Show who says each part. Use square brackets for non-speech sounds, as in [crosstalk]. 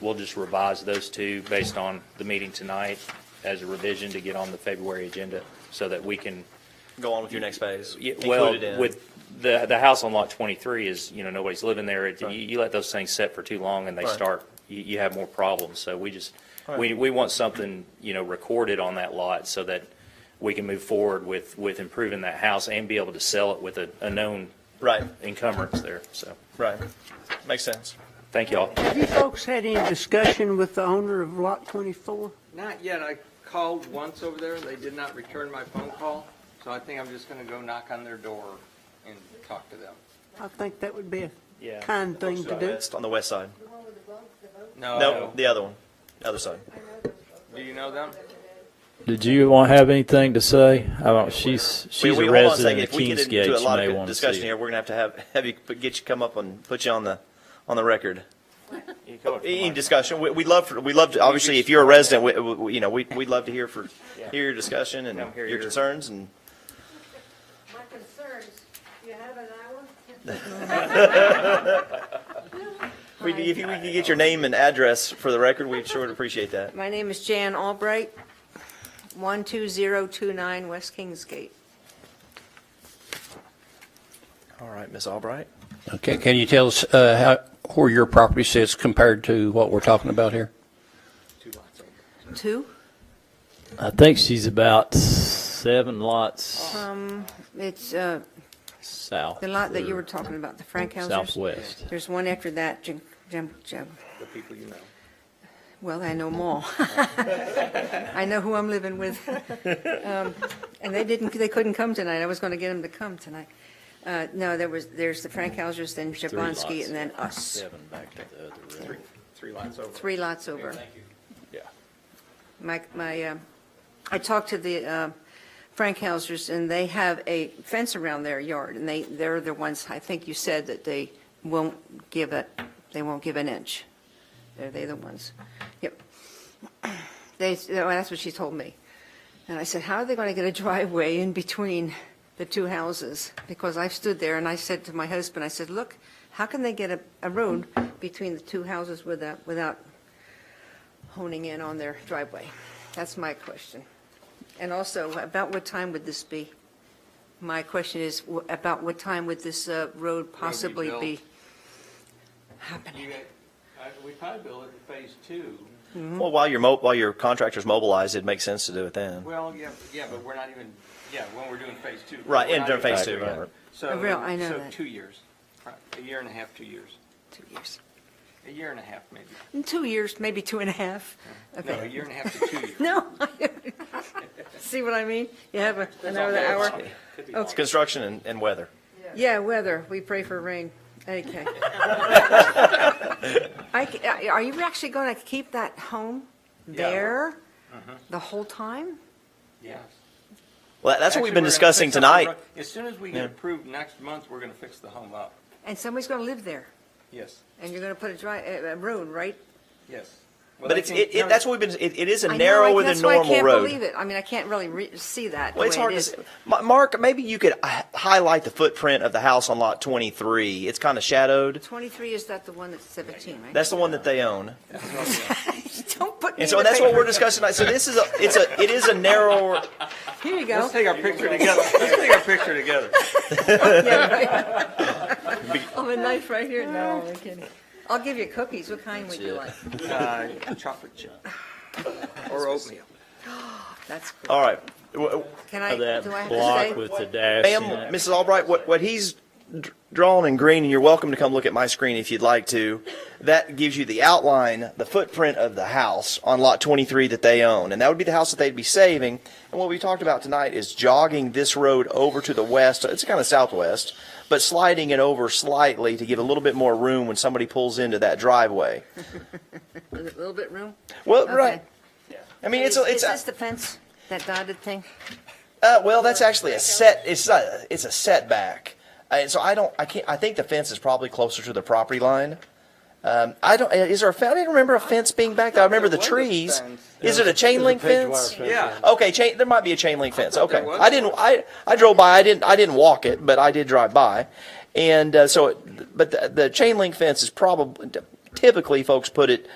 Speaker 1: we'll just revise those two based on the meeting tonight as a revision to get on the February agenda so that we can,
Speaker 2: Go on with your next phase.
Speaker 1: yeah,
Speaker 2: Include
Speaker 1: well,
Speaker 2: it in.
Speaker 1: with the, the house on lot 23 is, you know, nobody's living there. It- You,
Speaker 2: Right.
Speaker 1: you let those things set for too long and they
Speaker 2: Right.
Speaker 1: start, you, you have more problems. So we just,
Speaker 2: All
Speaker 1: we,
Speaker 2: right.
Speaker 1: we want something, you know, recorded on that lot so that we can move forward with, with improving that house and be able to sell it with a, a known
Speaker 2: Right,
Speaker 1: encumbrance there. So,
Speaker 2: right. Makes sense.
Speaker 1: thank y'all.
Speaker 3: Have you folks had any discussion with the owner of Lot 24?
Speaker 4: Not yet. I called once over there. They did not return my phone call, so I think I'm just going to go knock on their door and talk to them.
Speaker 3: I think that would be
Speaker 1: Yeah.
Speaker 3: a kind thing to do.
Speaker 2: West, on the west side.
Speaker 5: The one with the vote, the vote,
Speaker 4: No,
Speaker 6: Uh,
Speaker 2: No, the other one, the other side.
Speaker 5: I know those votes.
Speaker 4: do you know them?
Speaker 6: Did you want to have anything to say? I don't, she's, she's
Speaker 2: We-
Speaker 6: a
Speaker 2: we- hold on
Speaker 6: resident
Speaker 2: second.
Speaker 6: of
Speaker 2: If we get into
Speaker 6: Kingsgate,
Speaker 2: a
Speaker 6: she
Speaker 2: lot of
Speaker 6: may
Speaker 2: good
Speaker 6: want to
Speaker 2: Discussion
Speaker 6: see
Speaker 2: here,
Speaker 6: it.
Speaker 2: we're gonna have to have, have you, put- get you come up and put you on the, on the record. Any discussion, we, we'd love, for we love, to obviously, if you're a resident, we- we, we- you know, we, we'd love to hear for,
Speaker 1: Yeah.
Speaker 2: hear your discussion and
Speaker 1: Come hear
Speaker 2: your
Speaker 1: your-
Speaker 2: concerns and.
Speaker 5: My concerns, you have an hour?
Speaker 2: We- If you, we could get your name and address for the record, we'd sure would appreciate that.
Speaker 7: [laughs] My name is Jan Albright, 12029 West Kingsgate.
Speaker 2: All right, Ms. Albright?
Speaker 8: Okay, can you tell us uh, how, where your property sits compared to what we're talking about here?
Speaker 7: Two?
Speaker 6: I think she's about seven lots
Speaker 7: It's uh,
Speaker 6: south.
Speaker 7: Um, the lot that you
Speaker 6: or
Speaker 7: were talking about, the Frank houses.
Speaker 6: Southwest.
Speaker 7: There's one after that, Jim, Jim, Jim.
Speaker 4: The people you know.
Speaker 7: Well, I know
Speaker 6: [laughs]
Speaker 7: them all. I know who I'm living with. Um, And they didn't, they couldn't come tonight. I was going to get them to come tonight. Uh, No, there was, there's the Frank houses, then
Speaker 6: Three
Speaker 7: Jablonski,
Speaker 6: lots.
Speaker 7: and then us.
Speaker 6: Seven back to the other road.
Speaker 4: Three lines over.
Speaker 7: Three lots over.
Speaker 6: Yeah.
Speaker 7: My, my, um, I talked to the uh, Frank Hausers, and they have a fence around their yard, and they, they're the ones, I think you said that they won't give it, they won't give an inch. They're they the ones. Yep. They, oh, that's what she told me. And I said, how are they going to get a driveway in between the two houses? Because I stood there and I said to my husband, I said, look, how can they get a, a road between the two houses without, without honing in on their driveway? That's my question. And also, about what time would this be? My question is, wh- about what time would this uh, road possibly be
Speaker 4: built?
Speaker 7: happening?
Speaker 4: You got- I- We probably build it in phase two.
Speaker 2: Well, while your mo, while your contractor's mobilized, it makes sense to do it then.
Speaker 4: Well, yeah, yeah, but we're not even, yeah, when we're doing phase two.
Speaker 2: Right,
Speaker 4: We're
Speaker 2: and
Speaker 4: not
Speaker 2: during
Speaker 4: even-
Speaker 2: phase two,
Speaker 6: Exactly.
Speaker 2: right.
Speaker 4: So,
Speaker 7: Real, I know
Speaker 4: so
Speaker 7: that.
Speaker 4: two years, Right, a year and a half, two years,
Speaker 7: Two years.
Speaker 4: a year and a half maybe.
Speaker 7: In two years, maybe two and a half.
Speaker 4: No,
Speaker 7: Okay.
Speaker 4: a year and a half to two years.
Speaker 7: [laughs] No. See what I mean? You have a- another hour.
Speaker 2: It's construction and, and weather.
Speaker 7: Yeah, weather, we pray for rain.
Speaker 2: [laughs]
Speaker 7: Okay. I c- uh, Are you actually going to keep that home
Speaker 4: Yeah.
Speaker 7: there
Speaker 2: Mm-hmm.
Speaker 7: the whole time?
Speaker 4: Yes.
Speaker 2: Well, that's what
Speaker 4: Actually,
Speaker 2: we've
Speaker 4: we're
Speaker 2: been
Speaker 4: gonna
Speaker 2: discussing
Speaker 4: fix up the
Speaker 2: tonight.
Speaker 4: road. As soon as we get approved next month, we're gonna fix the home up.
Speaker 7: And somebody's going to live there,
Speaker 4: Yes,
Speaker 7: and you're going to put a dry, a a road, right?
Speaker 4: yes. Well,
Speaker 2: But
Speaker 4: they
Speaker 2: it's,
Speaker 4: can-
Speaker 2: it,
Speaker 4: no,
Speaker 2: it, that's what we've been, it, it is a
Speaker 7: I know,
Speaker 2: narrow
Speaker 7: I-
Speaker 2: with a
Speaker 7: That's why I
Speaker 2: normal
Speaker 7: can't
Speaker 2: road.
Speaker 7: believe it. I mean, I can't really re- see that the
Speaker 2: Well,
Speaker 7: way
Speaker 2: it's hard
Speaker 7: it
Speaker 2: to,
Speaker 7: is.
Speaker 2: s- Ma- Mark, maybe you could hi- highlight the footprint of the house on lot twenty-three. It's kind of shadowed.
Speaker 7: 23, is that the one that's 17, right?
Speaker 2: That's the one that they own.
Speaker 7: [laughs] Don't put me in
Speaker 2: And so
Speaker 7: the
Speaker 2: that's what
Speaker 7: paper.
Speaker 2: we're discussing tonight. So this is a, it's a, it is a narrow,
Speaker 7: Here you
Speaker 4: Let's
Speaker 7: go.
Speaker 4: take our picture together, let's take our picture together.
Speaker 7: Yeah, right. [laughs] Oh, a knife right here, no, I'm kidding. I'll give you cookies, what kind would you like?
Speaker 4: Uh, Chocolate chip. Or oatmeal.
Speaker 7: That's cool.
Speaker 2: all right. W-
Speaker 7: Can I,
Speaker 6: Of
Speaker 7: do
Speaker 6: Oh,
Speaker 7: I have
Speaker 6: That
Speaker 7: to
Speaker 6: block
Speaker 7: stay?
Speaker 6: with the dash in it.
Speaker 2: Ma'am, Mrs. Albright, what, what he's dr- drawn in green, and you're welcome to come look at my screen if you'd like to, that gives you the outline, the footprint of the house on lot 23 that they own. And that would be the house that they'd be saving. And what we talked about tonight is jogging this road over to the west, it's kind of southwest, but sliding it over slightly to give a little bit more room when somebody pulls into that driveway.
Speaker 7: A little bit room?
Speaker 2: Well,
Speaker 7: Okay.
Speaker 2: right. I mean, it's,
Speaker 7: Is
Speaker 2: a it's,
Speaker 7: is
Speaker 2: a-
Speaker 7: this the fence, that dotted thing?
Speaker 2: Uh, well, that's actually a set, it's a, it's a setback. Uh, And so I don't, I can't, I think the fence is probably closer to the property line. Um, I don't, is there a, fe- I didn't remember a fence being back there. I remember the
Speaker 4: There was a
Speaker 2: trees.
Speaker 4: fence.
Speaker 2: Is it a chain link fence?
Speaker 4: Yeah.
Speaker 2: Okay, chain, there might be a chain link fence. Okay.
Speaker 4: there was
Speaker 2: I didn't, I, I drove by, I didn't, I didn't walk it, but I did drive by. And, uh, so, it- but the, the chain link fence is probably, typically folks put it